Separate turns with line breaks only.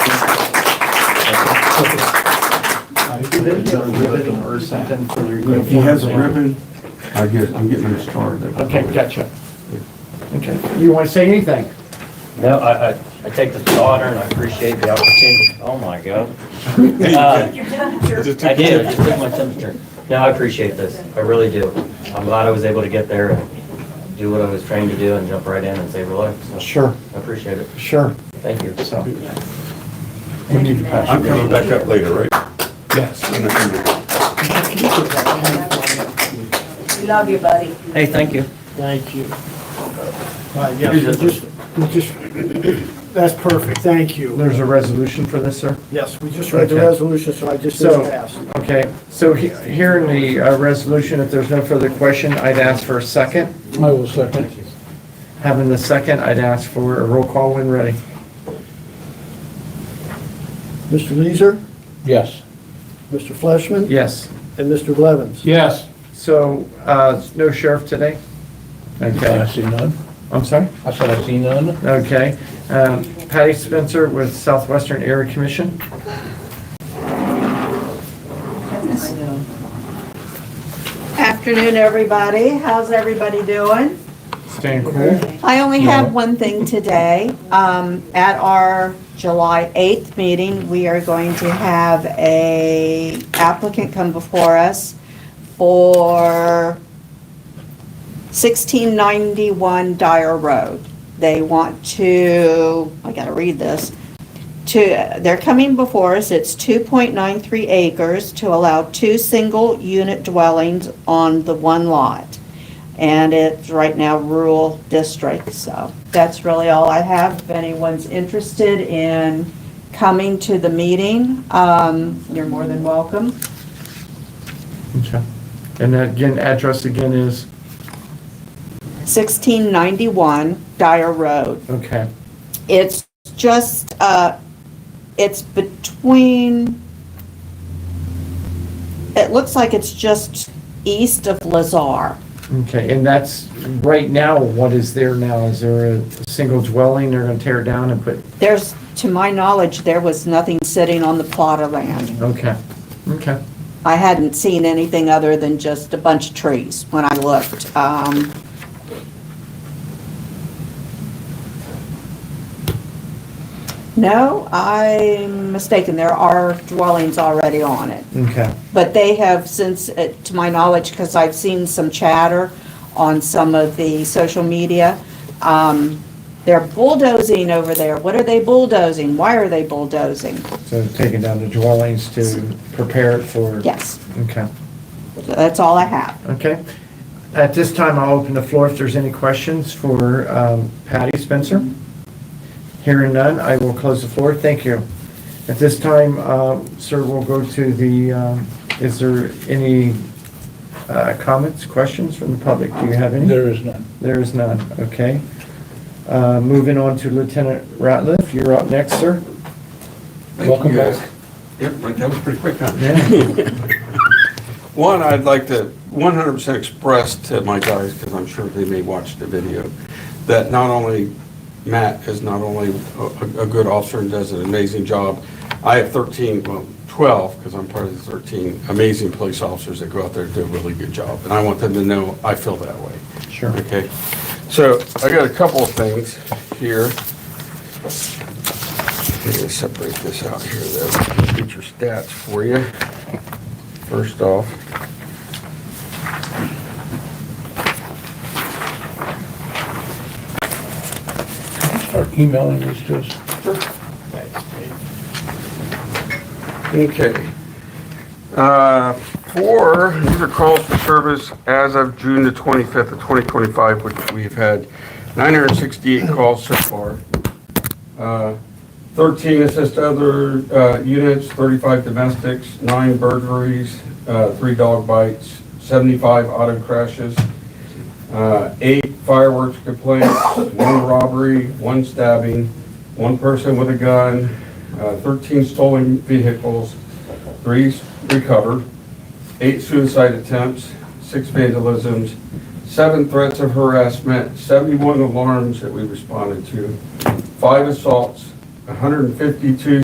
ribbon or ribbon or something for your uniform?
If he has a ribbon, I get, I'm getting him started.
Okay, gotcha. Okay, you want to say anything?
No, I, I, I take this to honor and I appreciate the opportunity. Oh my God. Uh, I did, I just took my temperature. No, I appreciate this. I really do. I'm glad I was able to get there and do what I was trained to do and jump right in and save a life. So,
Sure,
I appreciate it.
sure.
Thank you.
So. We need to pass.
I'm coming back up later, right?
Yes.
In the-
We love you, buddy.
Hey, thank you.
Thank you.
Uh, yeah,
Here's
just-
a-
We just, that's perfect, thank you.
There's a resolution for this, sir?
Yes, we just read the
Okay.
resolution, so I just need
So-
to ask.
Okay, so he- here in the uh, resolution, if there's no further question, I'd ask for a second.
I will second.
Having the second, I'd ask for a roll call when ready.
Mr. Leeser,
Yes.
Mr. Fleshman?
Yes.
And Mr. Blevins?
Yes.
So, uh, no sheriff today?
I
Okay,
see none.
I'm sorry?
I said I see none.
Okay. Um, Patty Spencer with Southwestern Area Commission?
Afternoon, everybody. How's everybody doing?
Staying cool?
I only have one thing today. Um, At our July 8th meeting, we are going to have a applicant come before us for 1691 Dyer Road. They want to, I gotta read this, to, they're coming before us, it's 2.93 acres to allow two single-unit dwellings on the one lot and it's right now rural district, so that's really all I have. If anyone's interested in coming to the meeting, um, you're more than welcome.
Okay. And that, again, address again is,
1691 Dyer Road.
okay,
It's just, uh, it's between, it looks like it's just east of Lazar.
okay, and that's, right now, what is there now? Is there a single dwelling they're gonna tear down and put,
There's, to my knowledge, there was nothing sitting on the plot of land.
okay, okay,
I hadn't seen anything other than just a bunch of trees when I looked. Um, No, I'm mistaken, there are dwellings already on it.
okay.
But they have since, uh, to my knowledge, because I've seen some chatter on some of the social media, um, they're bulldozing over there. What are they bulldozing? Why are they bulldozing?
So taking down the dwellings to prepare it for?
Yes,
Okay,
that's all I have.
okay. At this time, I'll open the floor if there's any questions for um, Patty Spencer. Hearing none, I will close the floor. Thank you. At this time, uh, sir, we'll go to the, um, is there any uh, comments, questions from the public? Do you have any?
There is none.
There is none, okay. Uh, Moving on to Lieutenant Ratliff, you're up next, sir.
Thank
Welcome
you, guys.
back.
Yep, right, that was pretty quick, huh?
Yeah.
One, I'd like to 100% express to my guys, because I'm sure they may watch the video, that not only Matt is not only a- a a good officer and does an amazing job, I have 13, well, 12, because I'm part of the 13 amazing police officers that go out there and do a really good job, and I want them to know I feel that way.
Sure.
Okay, so I got a couple of things here. Let me separate this out here, though, get your stats for you. First off.
Start emailing these to us.
Okay. Uh, Four, these are calls for service as of June the 25th of 2025, which we've had 968 calls so far. Uh, 13 assist other uh, units, 35 domestics, nine burglaries, uh, three dog bites, 75 auto crashes, uh, eight fireworks complaints, one robbery, one stabbing, one person with a gun, uh, 13 stolen vehicles, three recovered, eight suicide attempts, six vandalisms, seven threats of harassment, 71 alarms that we responded to, five assaults, 152